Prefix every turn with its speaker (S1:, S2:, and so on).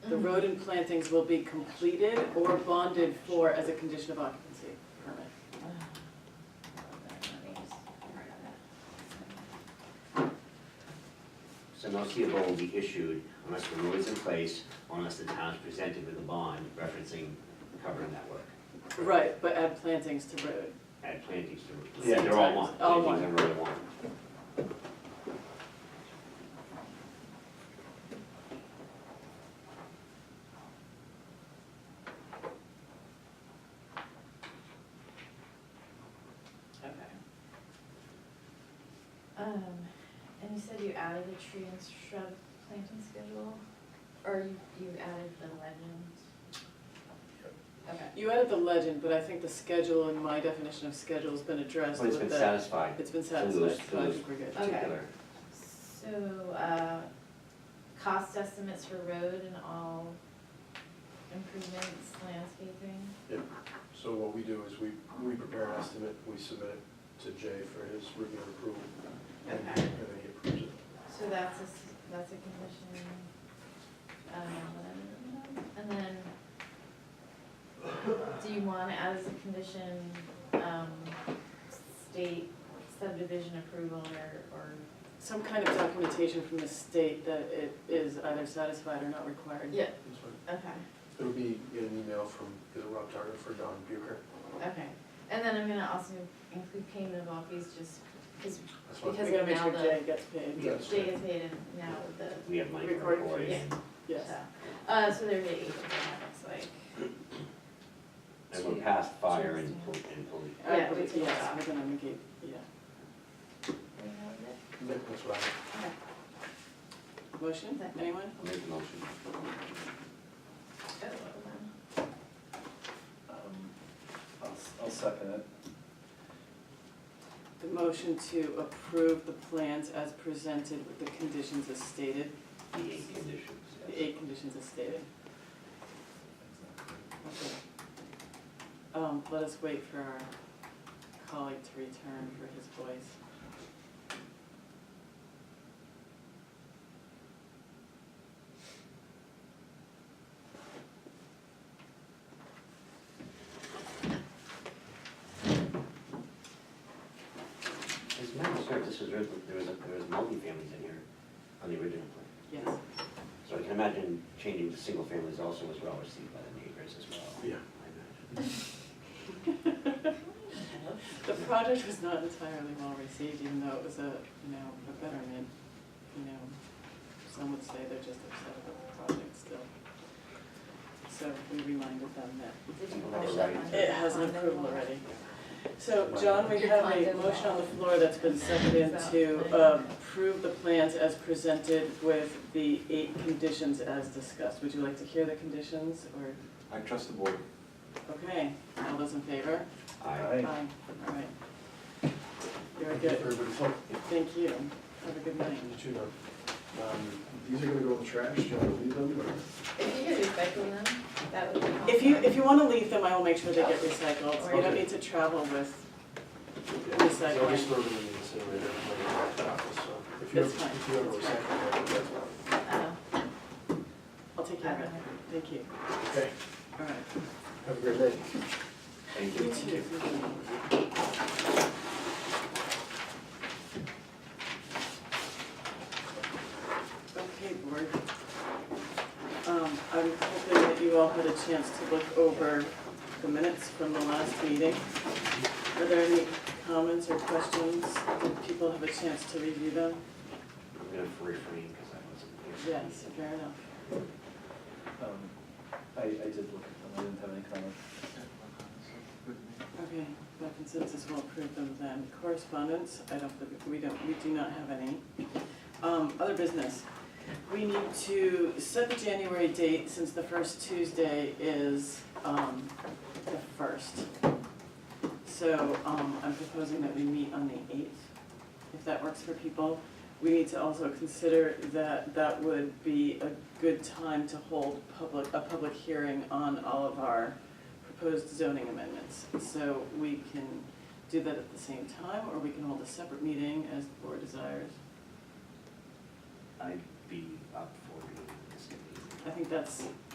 S1: Mm-hmm.
S2: rodent plantings will be completed or bonded for as a condition of occupancy permit.
S3: So no CO will be issued unless the road is in place, or unless the town is presented with a bond referencing covering that work.
S2: Right, but add plantings to road.
S3: Add plantings to,
S2: Yeah.
S3: yeah, they're all one,
S2: All one.
S3: plantings and road are one.
S2: Okay.
S1: Um, and you said you added the tree and shrub planting schedule, or you, you added the legend? Okay,
S2: You added the legend, but I think the schedule and my definition of schedule has been addressed
S3: But it's
S2: with
S3: been
S2: the.
S3: satisfied,
S2: It's been
S3: So those-
S2: satisfied, so I
S3: those-
S2: think we're good.
S1: Okay.
S3: particular.
S1: so, uh, cost estimates for road and all improvements, landscaping?
S4: So what we do is we, we prepare an estimate, we submit it to Jay for his review and approval. And and
S1: Okay.
S4: then he approves it.
S1: So that's a, s- that's a condition, um, and then, do you want as a condition, um, state subdivision approval or, or?
S2: Some kind of documentation from the state that it is either satisfied or not required.
S1: Yeah.
S4: That's fine.
S1: Okay,
S4: It'll be in an email from, is it Rob Target for Don Bucher?
S1: okay, and then I'm gonna also include payment of all fees just, cause
S4: That's fine.
S2: We
S1: Because-
S2: gotta make
S1: now
S2: sure
S1: the-
S2: Jay gets paid,
S4: Yes.
S1: Jay is paid and now the,
S3: We have money for
S2: Recording
S3: recording.
S1: yeah,
S2: yes.
S1: so, uh, so there'd be eight of them, that looks like,
S3: And we're past fire and pol- and police.
S2: I
S1: Yeah, we
S2: believe-
S1: take
S2: Yes,
S1: that.
S2: we're gonna negate, yeah.
S1: we have it,
S4: Yeah, That's what I.
S1: okay.
S2: Motion,
S1: Second.
S2: anyone?
S3: I'll make the motion.
S1: Oh, hold on.
S5: I'll, I'll second it.
S2: The motion to approve the plans as presented with the conditions as stated,
S3: The eight conditions.
S2: the eight conditions as stated. Okay. Um, let us wait for our colleague to return for his voice.
S3: As a matter of fact, this was, written- there was, a- there was multifamilies in here on the original plan.
S2: Yes,
S3: So I can imagine changing to single families also was well received by the neighbors as well.
S4: Yeah.
S3: I imagine.
S2: the project was not entirely well received, even though it was a, you know, a betterment, you know. Some would say they're just upset about the project still. So we reminded them that
S1: Did you
S3: Well,
S1: push
S3: right.
S1: that one?
S2: It has an approval already. So, John, we
S1: Your
S2: have a
S1: condo.
S2: motion on the floor that's been seconded to uh, approve the plans as presented with the eight conditions as discussed. Would you like to hear the conditions, or,
S5: I trust the board.
S2: okay, all those in favor?
S3: I,
S5: Aye.
S2: All right. Very good,
S4: Everybody's help.
S2: thank you, have a good night.
S4: You too, Don. Um, These are gonna go in the trash, do you wanna leave them or?
S1: If you could recycle them, that would be helpful.
S2: If you, if you wanna leave them, I will make sure they get recycled, so you don't
S4: Okay.
S2: need to travel with,
S4: Yeah, so
S2: Recycle.
S4: I'll just throw them in the incinerator, like, at the office, so. If you
S2: That's
S4: ever-
S2: fine.
S4: If you ever recycle, that's fine.
S1: Oh,
S2: I'll take care of it, thank you,
S4: Okay,
S2: all right.
S4: have a great day.
S3: thank
S2: You
S3: you.
S2: too. Okay, board. Um, I'm hoping that you all had a chance to look over the minutes from the last meeting. Are there any comments or questions? Did people have a chance to review them?
S3: I'm gonna refrain because I wasn't here.
S2: Yes, fair enough.
S5: Um, I, I did look at them, I didn't have any comments.
S2: Okay, by consensus, we'll approve them then. Correspondence, I don't, believe- we don't, we do not have any. Um, other business, we need to set the January date since the first Tuesday is, um, the first. So, um, I'm proposing that we meet on the eighth, if that works for people. We need to also consider that that would be a good time to hold public, a public hearing on all of our proposed zoning amendments. So we can do that at the same time, or we can hold a separate meeting as the board desires.
S3: I'd be up for doing this.
S2: I think that's